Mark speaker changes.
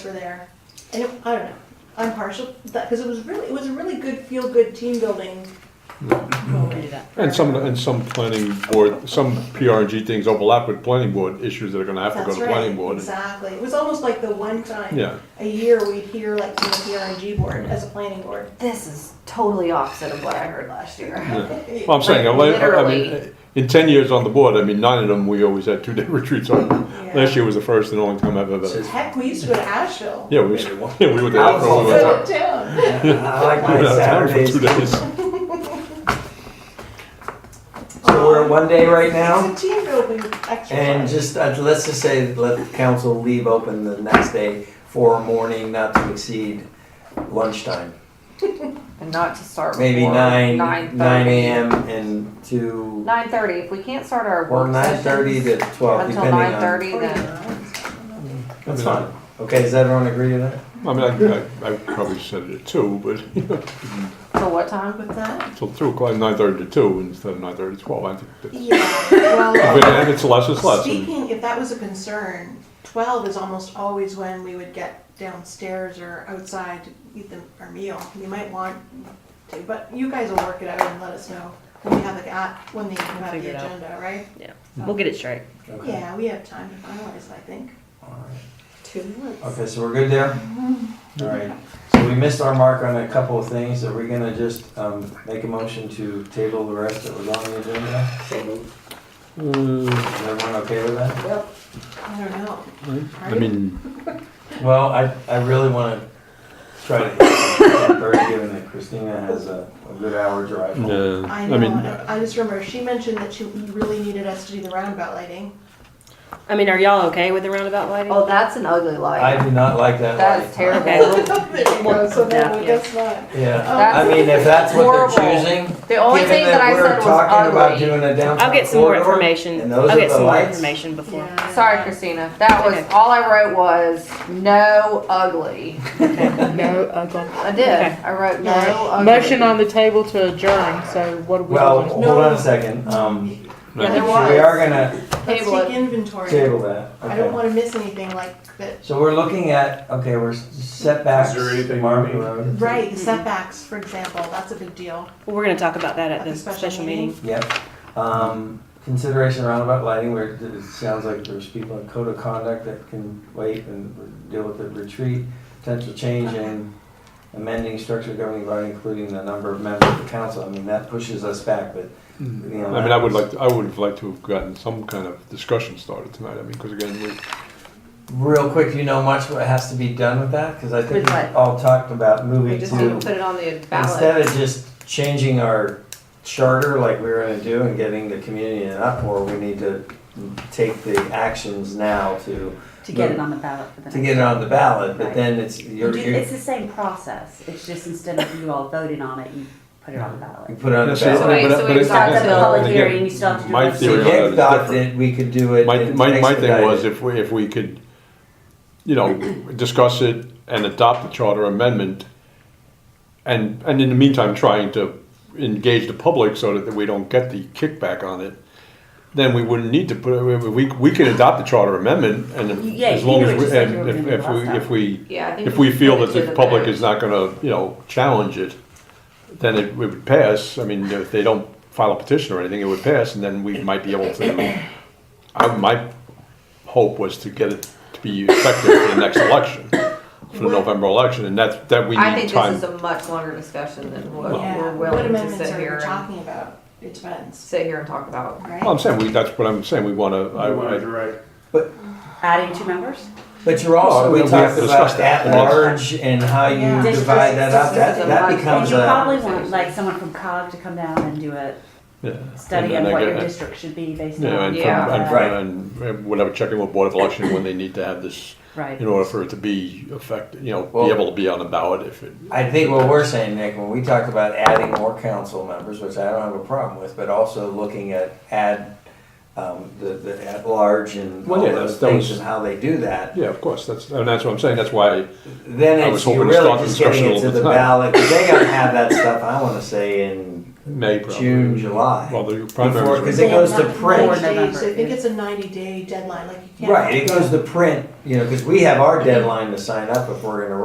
Speaker 1: were there, and it, I don't know. I'm partial because it was really it was a really good feel good team building. moment.
Speaker 2: And some, and some planning board, some PRG things overlap with planning board issues that are gonna have to go
Speaker 1: That's
Speaker 2: to
Speaker 1: right.
Speaker 2: planning board.
Speaker 1: Exactly. It was almost like the one time
Speaker 2: Yeah,
Speaker 1: a year we'd hear like from the PRG board as a planning board.
Speaker 3: This is totally opposite of what I heard last year.
Speaker 2: yeah. Well, I'm saying, I
Speaker 3: Like,
Speaker 2: like- I mean,
Speaker 3: literally.
Speaker 2: in ten years on the board, I mean, nine of them, we always had two-day retreats on.
Speaker 1: Yeah.
Speaker 2: Last year was the first and only time I've ever,
Speaker 4: Says-
Speaker 1: Heck, we used to go to Asheville.
Speaker 2: yeah, we,
Speaker 4: Maybe one.
Speaker 2: yeah, we were there for
Speaker 4: Oh,
Speaker 2: over
Speaker 4: yeah.
Speaker 2: a
Speaker 1: Go to town.
Speaker 4: I like
Speaker 2: We
Speaker 4: my
Speaker 2: were out of town for
Speaker 4: Saturdays.
Speaker 2: two days.
Speaker 4: So we're at one day right now,
Speaker 1: It's a team building
Speaker 4: and
Speaker 1: exercise.
Speaker 4: just, uh, let's just say, let the council leave open the next day for morning, not to exceed lunchtime.
Speaker 3: And not to start
Speaker 4: Maybe
Speaker 3: before
Speaker 4: nine,
Speaker 3: 9:30.
Speaker 4: nine AM and to,
Speaker 3: 9:30. If we can't start our
Speaker 4: or
Speaker 3: work
Speaker 4: nine thirty
Speaker 3: sessions
Speaker 4: to twelve,
Speaker 3: until
Speaker 4: depending on.
Speaker 3: 9:30, then
Speaker 4: That's fine. Okay, does everyone agree to that?
Speaker 2: I mean, I, I, I probably said it at two, but, you know,
Speaker 3: till what time?
Speaker 1: With that?
Speaker 2: till two o'clock, nine thirty to two instead of nine thirty to twelve, I think. that's-
Speaker 1: Yeah. Well,
Speaker 2: But, and it's less, it's less. and-
Speaker 1: Speaking, if that was a concern, twelve is almost always when we would get downstairs or outside to eat the, our meal. You might want to, but you guys will work it out and let us know when you have the, a- when they come out the
Speaker 5: Figure it out.
Speaker 1: agenda, right?
Speaker 5: We'll get it straight.
Speaker 4: Okay.
Speaker 1: Yeah, we have time to finalize, I think.
Speaker 4: All right.
Speaker 1: Two months.
Speaker 4: Okay, so we're good there? All right, so we missed our mark on a couple of things, are we gonna just, um, make a motion to table the rest that was on the agenda?
Speaker 2: Uh,
Speaker 4: Is everyone okay with that?
Speaker 1: I don't know.
Speaker 2: I mean,
Speaker 4: Well, I, I really wanna try to, I'm very given that Christina has a, a good hour drive home.
Speaker 2: uh,
Speaker 1: I
Speaker 2: I
Speaker 1: know,
Speaker 2: mean,
Speaker 1: I I just remember she mentioned that she really needed us to do the roundabout lighting.
Speaker 5: I mean, are y'all okay with the roundabout lighting?
Speaker 3: Oh, that's an ugly
Speaker 4: I
Speaker 3: light.
Speaker 4: do not like that
Speaker 3: That is
Speaker 4: light.
Speaker 3: terrible.
Speaker 5: Okay.
Speaker 1: There you go, so no, I guess not.
Speaker 4: Yeah, I
Speaker 3: That's
Speaker 4: mean, if that's what they're
Speaker 3: horrible.
Speaker 4: choosing,
Speaker 3: The only
Speaker 4: given
Speaker 3: thing that I
Speaker 4: that we're
Speaker 3: said
Speaker 4: talking about
Speaker 3: was ugly.
Speaker 4: doing a
Speaker 5: I'll
Speaker 4: downtown
Speaker 5: get some more
Speaker 4: corridor.
Speaker 5: information.
Speaker 4: and those
Speaker 5: I'll
Speaker 4: are
Speaker 5: get
Speaker 4: the
Speaker 5: some more
Speaker 4: lights.
Speaker 5: information before.
Speaker 1: Yeah.
Speaker 3: Sorry, Christina. That was,
Speaker 5: Okay.
Speaker 3: all I wrote was no ugly.
Speaker 6: No, okay.
Speaker 3: I did. I wrote no
Speaker 1: Yeah.
Speaker 3: ugly.
Speaker 6: Motion on the table to adjourn, so what are we
Speaker 4: Well,
Speaker 6: doing?
Speaker 4: hold on a second, um, we
Speaker 3: Yeah, there was.
Speaker 4: are gonna
Speaker 1: Let's
Speaker 3: Table
Speaker 1: take
Speaker 3: it.
Speaker 1: inventory.
Speaker 4: table that.
Speaker 1: I
Speaker 4: okay.
Speaker 1: don't wanna miss anything like that
Speaker 4: So we're looking at, okay, we're setbacks.
Speaker 7: Is there anything you
Speaker 4: Marvin
Speaker 7: need?
Speaker 4: Road.
Speaker 1: Right, setbacks, for example, that's a big deal.
Speaker 5: Well, we're gonna talk about that at the special meeting.
Speaker 4: Yep. Um, consideration roundabout lighting, where it sounds like there's people in code of conduct that can wait and deal with the retreat. Potential change in amending structure governing body, including the number of members of the council. I mean, that pushes us back, but, you know.
Speaker 2: I mean, I would like, to- I would have liked to have gotten some kind of discussion started tonight, I mean, because again, we,
Speaker 4: Real quick, you know much what has to be done with that? Cause I think
Speaker 3: With
Speaker 4: we
Speaker 3: what?
Speaker 4: all talked about
Speaker 3: We
Speaker 4: moving
Speaker 3: just need to
Speaker 4: to,
Speaker 3: put it on the ballot.
Speaker 4: instead of just changing our charter like we were gonna do and getting the community in an uproar, we need to take the actions now to
Speaker 8: To get it on the ballot for the
Speaker 4: to
Speaker 8: next.
Speaker 4: get it on the ballot, but
Speaker 8: Right.
Speaker 4: then it's,
Speaker 8: You
Speaker 4: you're,
Speaker 8: do-
Speaker 4: you're,
Speaker 8: It's the same process, it's just instead of you all voting on it, you put it on the
Speaker 4: you
Speaker 8: ballot.
Speaker 4: put it on the
Speaker 2: Yes, sir.
Speaker 4: ballot.
Speaker 3: Wait,
Speaker 2: but-
Speaker 3: so
Speaker 2: but
Speaker 3: we
Speaker 2: it's-
Speaker 3: talked
Speaker 2: it's-
Speaker 3: about
Speaker 2: uh,
Speaker 8: public
Speaker 2: again,
Speaker 8: hearing, you still have to do
Speaker 2: my
Speaker 8: it.
Speaker 4: So
Speaker 2: theory on that
Speaker 4: Nick thought
Speaker 2: is different.
Speaker 4: that we could do it
Speaker 2: My,
Speaker 4: and
Speaker 2: my, my
Speaker 4: expedite
Speaker 2: thing was
Speaker 4: it.
Speaker 2: if we, if we could, you know, discuss it and adopt the charter amendment, and, and in the meantime, trying to engage the public so that we don't get the kickback on it, then we wouldn't need to put, we, we, we can adopt the charter amendment, and if-
Speaker 8: Yeah,
Speaker 2: as
Speaker 8: you
Speaker 2: long
Speaker 8: do
Speaker 2: as,
Speaker 8: it
Speaker 2: we-
Speaker 8: just like you
Speaker 2: and
Speaker 8: were
Speaker 2: if,
Speaker 8: gonna do
Speaker 2: if
Speaker 8: last
Speaker 2: we,
Speaker 8: time.
Speaker 2: if we,
Speaker 3: Yeah, I think
Speaker 2: if we feel
Speaker 3: put
Speaker 2: that
Speaker 3: it to
Speaker 2: the public
Speaker 3: vote.
Speaker 2: is not gonna, you know, challenge it, then it would pass. I mean, if they don't file a petition or anything, it would pass, and then we might be able to, I, my hope was to get it to be effective for the next election, for the November election, and that's, that we
Speaker 3: I
Speaker 2: need
Speaker 3: think this is
Speaker 2: time.
Speaker 3: a much longer discussion than what
Speaker 1: Yeah,
Speaker 3: we're
Speaker 1: what
Speaker 3: willing to
Speaker 1: amendments
Speaker 3: sit
Speaker 1: are
Speaker 3: here
Speaker 1: we
Speaker 3: and,
Speaker 1: talking about? It depends,
Speaker 3: sit here and talk about.
Speaker 1: right?
Speaker 2: Well, I'm saying, we, that's what I'm saying, we wanna, I,
Speaker 7: I wanted to
Speaker 2: I,
Speaker 7: write.
Speaker 8: Adding two members?
Speaker 4: But you're
Speaker 2: Well,
Speaker 4: also, we
Speaker 2: Oh, we have
Speaker 4: talked
Speaker 2: to
Speaker 4: about
Speaker 2: discuss that.
Speaker 4: at large and how
Speaker 1: Yeah.
Speaker 4: you
Speaker 8: Districts,
Speaker 4: divide that up, that,
Speaker 3: districts,
Speaker 4: that
Speaker 3: and
Speaker 4: becomes
Speaker 8: You
Speaker 3: that.
Speaker 4: a,
Speaker 8: probably want like someone from COG to come down and do a
Speaker 2: yeah.
Speaker 8: study
Speaker 2: And then
Speaker 8: of
Speaker 2: I
Speaker 8: what
Speaker 2: get-
Speaker 8: your district should be based on.
Speaker 2: Yeah, and from,
Speaker 3: Yeah.
Speaker 2: and from,
Speaker 4: Right.
Speaker 2: and- and whatever, checking with Board of Election when they need to have this,
Speaker 8: Right.
Speaker 2: in order for it to be effective, you know,
Speaker 4: Well-
Speaker 2: be able to be on the ballot if it,
Speaker 4: I think what we're saying, Nick, when we talked about adding more council members, which I don't have a problem with, but also looking at add, um, the, the at large and
Speaker 2: Well,
Speaker 4: all
Speaker 2: yeah, that's-
Speaker 4: those
Speaker 2: that
Speaker 4: things
Speaker 2: was-
Speaker 4: and how they do that,
Speaker 2: yeah, of course, that's, and that's what I'm saying, that's why
Speaker 4: then
Speaker 2: I was
Speaker 4: it's, you're
Speaker 2: hoping to
Speaker 4: really
Speaker 2: start
Speaker 4: just
Speaker 2: discussion
Speaker 4: getting
Speaker 2: all
Speaker 4: it to
Speaker 2: the
Speaker 4: the
Speaker 2: time.
Speaker 4: ballot, 'cause they gotta have that stuff, I wanna say, in
Speaker 2: May probably.
Speaker 4: June, July.
Speaker 2: Well, the
Speaker 4: Before-
Speaker 2: primary.
Speaker 4: 'cause it goes to
Speaker 1: Not
Speaker 4: print.
Speaker 1: 90 days.
Speaker 8: November,
Speaker 1: I think
Speaker 8: yeah.
Speaker 1: it's a ninety day deadline, like you can't.
Speaker 4: Right, it goes to print, you know, because we have our deadline to sign up if we're gonna